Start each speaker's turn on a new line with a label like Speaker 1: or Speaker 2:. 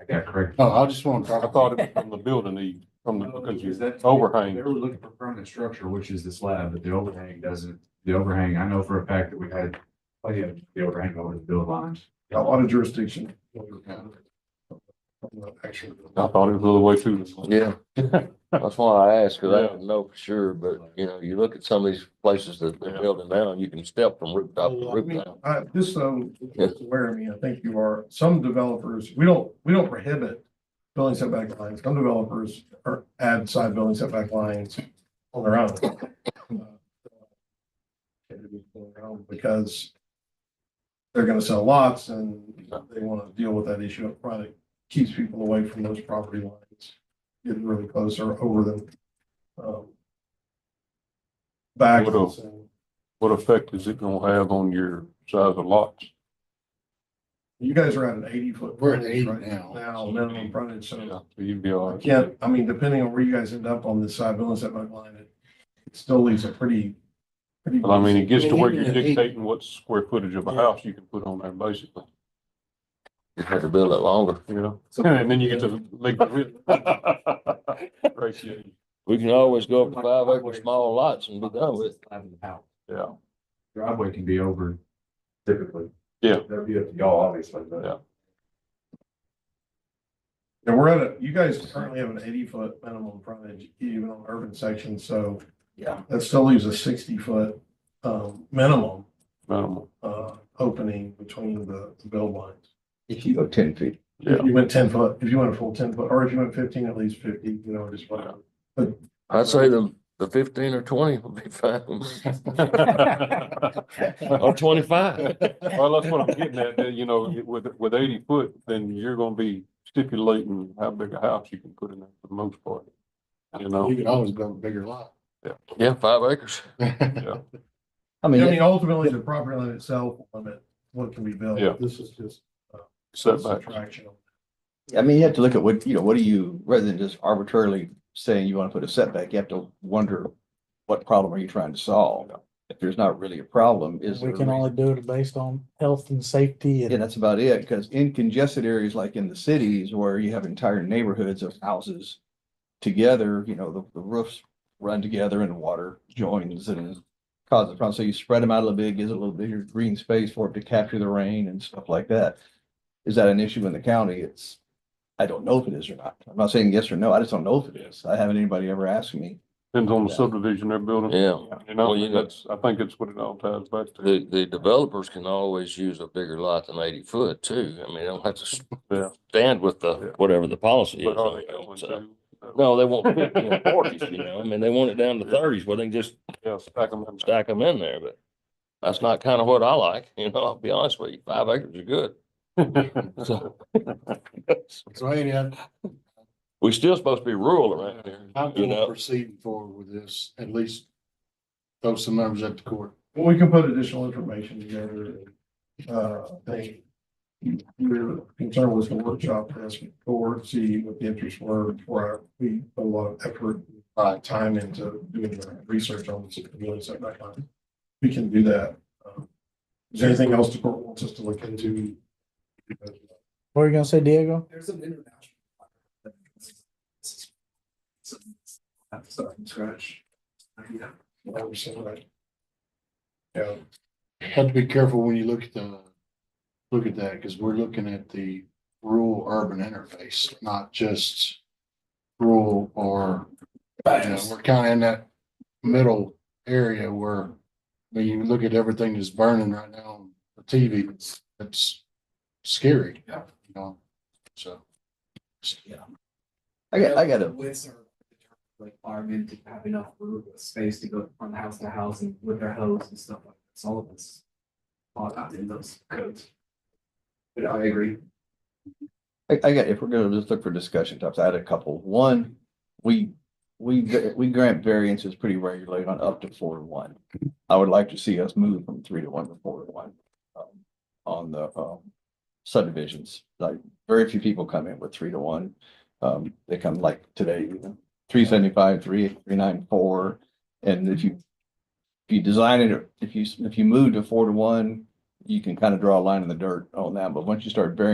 Speaker 1: I got correct.
Speaker 2: Oh, I just want to
Speaker 3: I
Speaker 2: talk
Speaker 3: thought
Speaker 2: about
Speaker 3: it was from the building, the, from the, because
Speaker 1: Is
Speaker 3: you
Speaker 1: that- They
Speaker 3: overhang.
Speaker 1: were looking for permanent structure, which is the slab, but the overhang doesn't, the overhang, I know for a fact that we had plenty of the overhang over the build lines.
Speaker 2: a lot of jurisdiction. Actually,
Speaker 3: I thought it was a little way too.
Speaker 4: Yeah, that's why I asked, cause I
Speaker 3: Yeah.
Speaker 4: didn't know for sure, but you know, you look at some of these places that they're
Speaker 3: Yeah.
Speaker 4: building now, you can step from rooftop to
Speaker 5: Oh, I
Speaker 4: rooftop.
Speaker 2: I, Uh, just so it's aware of me, I think you are, some developers, we don't, we don't prohibit building setback lines. Some developers are add side building setback lines on their own. Because they're gonna sell lots and they want to deal with that issue up front. It keeps people away from those property lines. Getting really close or over them. um, Back.
Speaker 3: What else? What effect is it gonna have on your size of lots?
Speaker 2: You guys are at an eighty foot.
Speaker 5: We're at
Speaker 2: frontage
Speaker 5: 80
Speaker 2: right
Speaker 5: now.
Speaker 2: Now, minimum frontage, so
Speaker 3: You'd be all
Speaker 2: I
Speaker 3: right.
Speaker 2: can't, I mean, depending on where you guys end up on this side building setback line, it it still leaves a pretty. pretty-
Speaker 3: Well, I mean, it gets to where
Speaker 5: Yeah,
Speaker 3: you're
Speaker 5: yeah, eight.
Speaker 3: dictating what square footage of a house you can put on there, basically,
Speaker 4: You had to build it longer.
Speaker 3: you know? And then you get to the legal ratio.
Speaker 4: We can always go up to five acre small lots and be done with. it.
Speaker 1: Slab in the house.
Speaker 3: Yeah,
Speaker 1: Driveway can be over typically.
Speaker 3: Yeah.
Speaker 1: That'd be up to y'all, obviously, but.
Speaker 3: Yeah.
Speaker 2: And we're at a, you guys currently have an eighty foot minimum frontage even on urban sections, so.
Speaker 1: Yeah.
Speaker 2: That still leaves a sixty foot um minimum
Speaker 3: minimal,
Speaker 2: uh opening between the the build lines.
Speaker 5: If you go ten feet.
Speaker 3: yeah.
Speaker 2: If you went ten foot, if you went a full ten foot, or if you went fifteen, at least fifty, you know, just whatever.
Speaker 4: I'd say the, the fifteen or twenty would be fine, or twenty-five.
Speaker 3: Well, that's what I'm getting at, that, you know, with, with eighty foot, then you're gonna be stipulating how big a house you can put in there for the most part. You know,
Speaker 5: You can always build a bigger lot.
Speaker 4: Yeah, five acres.
Speaker 5: I
Speaker 2: I
Speaker 5: mean,
Speaker 2: mean, ultimately, the property line itself will limit what can be built.
Speaker 3: Yeah.
Speaker 2: This is just
Speaker 3: setback,
Speaker 2: subtraction.
Speaker 5: I mean, you have to look at what, you know, what do you, rather than just arbitrarily saying you want to put a setback, you have to wonder what problem are you trying to solve? If there's not really a problem, is there?
Speaker 6: We
Speaker 5: a
Speaker 6: can
Speaker 5: reason?
Speaker 6: only do it based on health and safety
Speaker 5: Yeah,
Speaker 6: and
Speaker 5: that's about it, because in congested areas like in the cities where you have entire neighborhoods of houses together, you know, the, the roofs run together and water joins and causes problems. So you spread them out a little bit, gives it a little bigger green space for it to capture the rain and stuff like that. Is that an issue in the county? It's, I don't know if it is or not. I'm not saying yes or no. I just don't know if it is. I haven't anybody ever asked me.
Speaker 3: depends on the subdivision they're building,
Speaker 4: Yeah,
Speaker 3: you
Speaker 4: Well, you
Speaker 3: know,
Speaker 4: know-
Speaker 3: that's, I think it's what it all ties back to.
Speaker 4: the, the developers can always use a bigger lot than eighty foot too. I mean, they don't have to
Speaker 3: Yeah.
Speaker 4: s- stand with the,
Speaker 3: Yeah.
Speaker 4: whatever the policy
Speaker 3: But
Speaker 4: is.
Speaker 3: are they
Speaker 4: on
Speaker 3: going
Speaker 4: it, so.
Speaker 3: to?
Speaker 4: No, they want fifty and forties, you know, I mean, they want it down to thirties, where they can just
Speaker 3: Yeah, stack 'em in.
Speaker 4: stack them in there, but that's not kind of what I like, you know, I'll be honest with you, five acres are good. So
Speaker 5: So Andy, I-
Speaker 4: we still supposed to be rural around here,
Speaker 5: I'm
Speaker 4: you
Speaker 5: gonna
Speaker 4: know?
Speaker 5: proceed forward with this, at least throw some numbers at the court.
Speaker 2: Well, we can put additional information together. Uh, I think Your concern was the workshop, ask for, see what the interests were, before I- we put a lot of effort, uh, time into doing the research on this, really setback line. We can do that. Um, Is there anything else the court wants us to look into?
Speaker 6: what are you gonna say, Diego?
Speaker 7: There's an international.
Speaker 2: I'm sorry, scratch. Yeah. I was saying that. Yeah.
Speaker 5: Have to be careful when you look at the, look at that, because we're looking at the rural urban interface, not just rural or, you know, we're kind of in that middle area where when you look at everything that's burning right now on the TV, it's, it's scary. Yeah. You know, so.
Speaker 7: I
Speaker 5: I got- I got a-
Speaker 7: With our requirement to have enough room, space to go from house to house and with their hose and stuff like this, all of this. All out in those codes. But I agree.
Speaker 5: I, I got, if we're gonna just look for discussion topics, I had a couple. One, we, we, we grant variances pretty regularly on up to four to one. I would like to see us move from three to one to four to one. um, On the, um, subdivisions, like very few people come in with three to one. Um, they come like today, three seventy-five, three, three nine four. And if you, if you design it, if you, if you move to four to one, you can kind of draw a line in the dirt on that. But once you start varying